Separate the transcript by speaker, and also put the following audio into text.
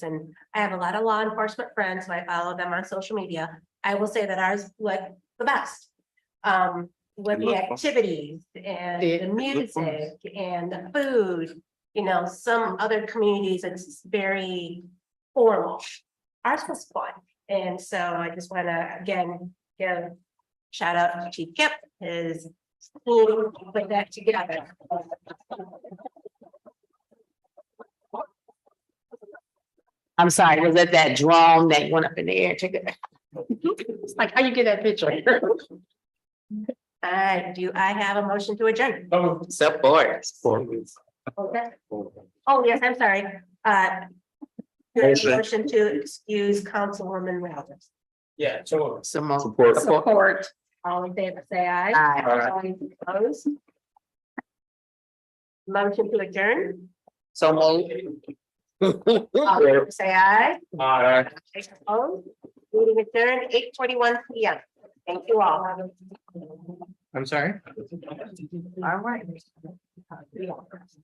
Speaker 1: And I have a lot of law enforcement friends, so I follow them on social media. I will say that ours was the best. Um, with the
Speaker 2: Look.
Speaker 1: activities and
Speaker 3: It-
Speaker 1: the music and the food, you know, some other communities, it's very formal. Ours was fun. And so I just want to, again, give shout out to Chief Kip, his team, put that together.
Speaker 3: I'm sorry, was that that drone that went up in the air? Check it. It's like, how you get that picture?
Speaker 1: Uh, do I have a motion to adjourn?
Speaker 2: Oh,
Speaker 3: Support.
Speaker 1: Okay. Oh, yes, I'm sorry. Uh. do I have a
Speaker 2: Motion.
Speaker 1: Motion to excuse Councilwoman Rounds.
Speaker 2: Yeah, so.
Speaker 3: Support.
Speaker 2: Support.
Speaker 3: Support.
Speaker 1: All in favor, say aye.
Speaker 3: Aye.
Speaker 1: Aye. Opposed? Motion to adjourn,
Speaker 3: So moved.
Speaker 1: all in favor, say aye.
Speaker 2: Alright.
Speaker 1: Aye, Opposed? Meeting adjourned, eight twenty-one P M. Thank you all.
Speaker 2: I'm sorry?
Speaker 1: All right.